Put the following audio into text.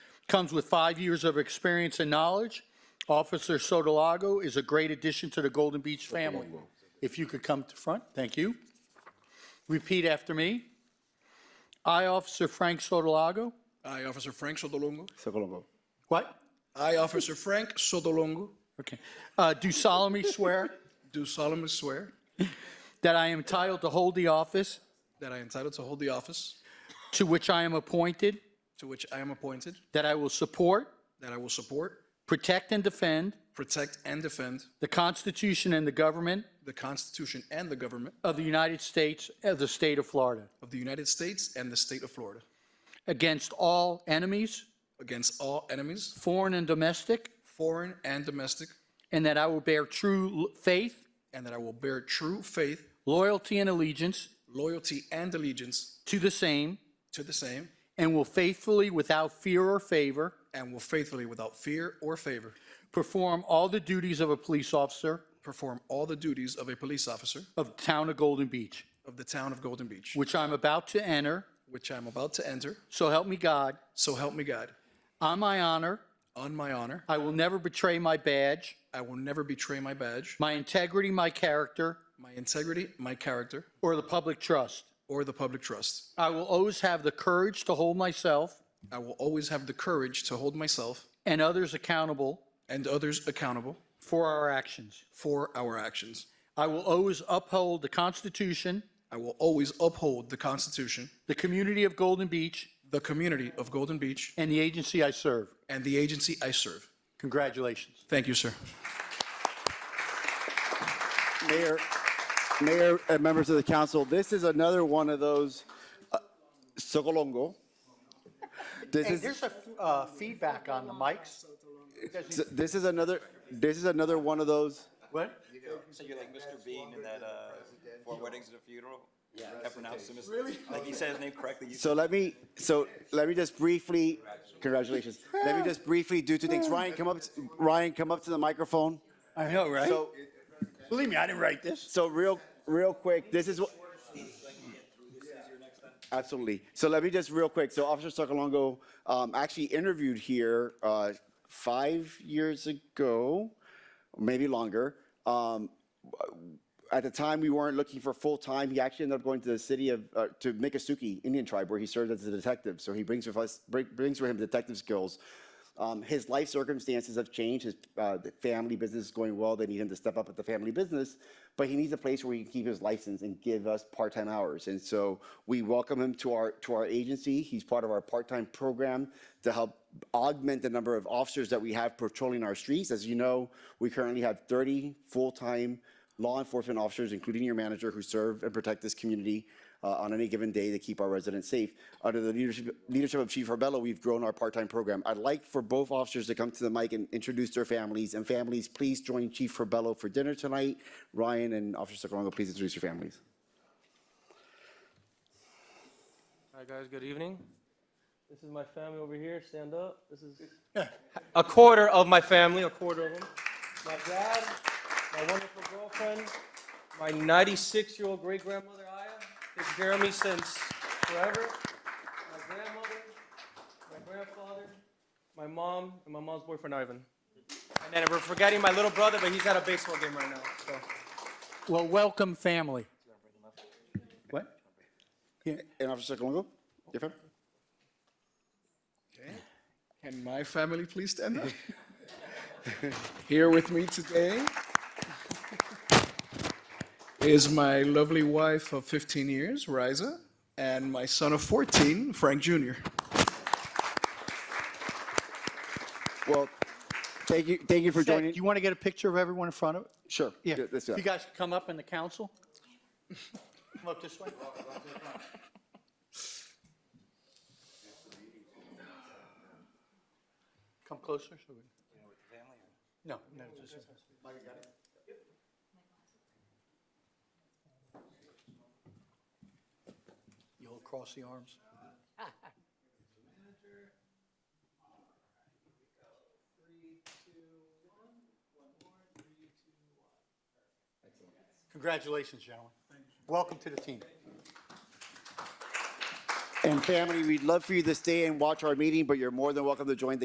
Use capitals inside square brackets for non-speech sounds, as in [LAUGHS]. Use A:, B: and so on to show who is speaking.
A: comes with five years of experience and knowledge. Officer Sotolago is a great addition to the Golden Beach family. If you could come to front, thank you. Repeat after me. I, Officer Frank Sotolago.
B: I, Officer Frank Sotolongo.
C: Sotolongo.
A: What?
B: I, Officer Frank Sotolongo,
A: Okay. Uh, Do solemnly swear
B: do solemnly swear
A: that I am entitled to hold the office
B: that I am entitled to hold the office
A: to which I am appointed,
B: to which I am appointed,
A: that I will support,
B: that I will support,
A: protect, and defend
B: protect, and defend
A: the Constitution and the government
B: the Constitution and the government
A: of the United States of the state of Florida
B: of the United States and the state of Florida
A: against all enemies,
B: against all enemies,
A: foreign and domestic,
B: foreign and domestic,
A: and that I will bear true l- faith,
B: and that I will bear true faith,
A: loyalty, and allegiance
B: loyalty, and allegiance
A: to the same
B: to the same,
A: and will faithfully, without fear or favor,
B: and will faithfully, without fear or favor,
A: perform all the duties of a police officer
B: perform all the duties of a police officer
A: of the town of Golden Beach,
B: of the town of Golden Beach,
A: which I'm about to enter.
B: which I am about to enter.
A: So help me God.
B: So help me God.
A: On my honor,
B: On my honor,
A: I will never betray my badge,
B: I will never betray my badge,
A: my integrity, my character,
B: my integrity, my character,
A: or the public trust.
B: or the public trust.
A: I will always have the courage to hold myself
B: I will always have the courage to hold myself
A: and others accountable
B: and others accountable
A: for our actions.
B: for our actions.
A: I will always uphold the Constitution,
B: I will always uphold the Constitution,
A: the community of Golden Beach,
B: the community of Golden Beach,
A: and the agency I serve.
B: and the agency I serve.
A: Congratulations.
B: Thank you, sir.
C: Mayor, Mayor, and members of the council, this is another one of those, uh, Sotolongo. This
A: Hey,
C: is.
A: there's a uh, feedback on the mics.
C: So This is another, this is another one of those,
A: What?
D: So you're like Mr. Bean in that, uh, Four Weddings and a Funeral? Yeah. That pronounced him as, like he said his name correctly, you
C: so let me, so let me just briefly, congratulations. Let me just briefly do two things. Ryan, come up, Ryan, come up to the microphone.
A: I know, right?
C: So,
A: Believe me, I didn't write this.
C: so real, real quick, this is what. Absolutely. So let me just real quick. So Officer Socalongo um, actually interviewed here uh, five years ago, maybe longer. Um, at the time, we weren't looking for full time. He actually ended up going to the city of uh, to Miccosukee Indian Tribe, where he served as a detective. So he brings with us bring, brings with him detective skills. Um, his life circumstances have changed. His uh, the family business is going well. They need him to step up at the family business, but he needs a place where he can keep his license and give us part time hours. And so we welcome him to our to our agency. He's part of our part time program to help augment the number of officers that we have patrolling our streets. As you know, we currently have 30 full time law enforcement officers, including your manager, who serve and protect this community uh, on any given day to keep our residents safe. Under the leadership, leadership of Chief Harbella, we've grown our part-time program. I'd like for both officers to come to the mic and introduce their families. And families, please join Chief Harbella for dinner tonight. Ryan and Officer Socalongo, please introduce your families.
E: Hi guys, good evening. This is my family over here. Stand up. This is a quarter of my family, a quarter of them. My dad, my wonderful girlfriend, my 96-year-old great grandmother Aya, takes care of me since forever. My grandmother, my grandfather, my mom, and my mom's boyfriend Ivan. And then we're forgetting my little brother, but he's at a baseball game right now. So
A: Well, welcome, family. What?
C: And Officer Socalongo, your family?
B: Can my family please stand up? [LAUGHS] Here with me today is my lovely wife of 15 years, Riza, and my son of 14, Frank Jr.
C: Well, thank you, thank you for
A: Do
C: joining.
A: you want to get a picture of everyone in front of it?
C: Sure.
A: Yeah,
C: Let's do
A: you
C: that.
A: guys could come up in the council? Come up this way. Come closer, so we. No, no, just. You'll cross the arms. Congratulations, gentlemen. Welcome to the team.
C: And family, we'd love for you to stay and watch our meeting, but you're more than welcome to join the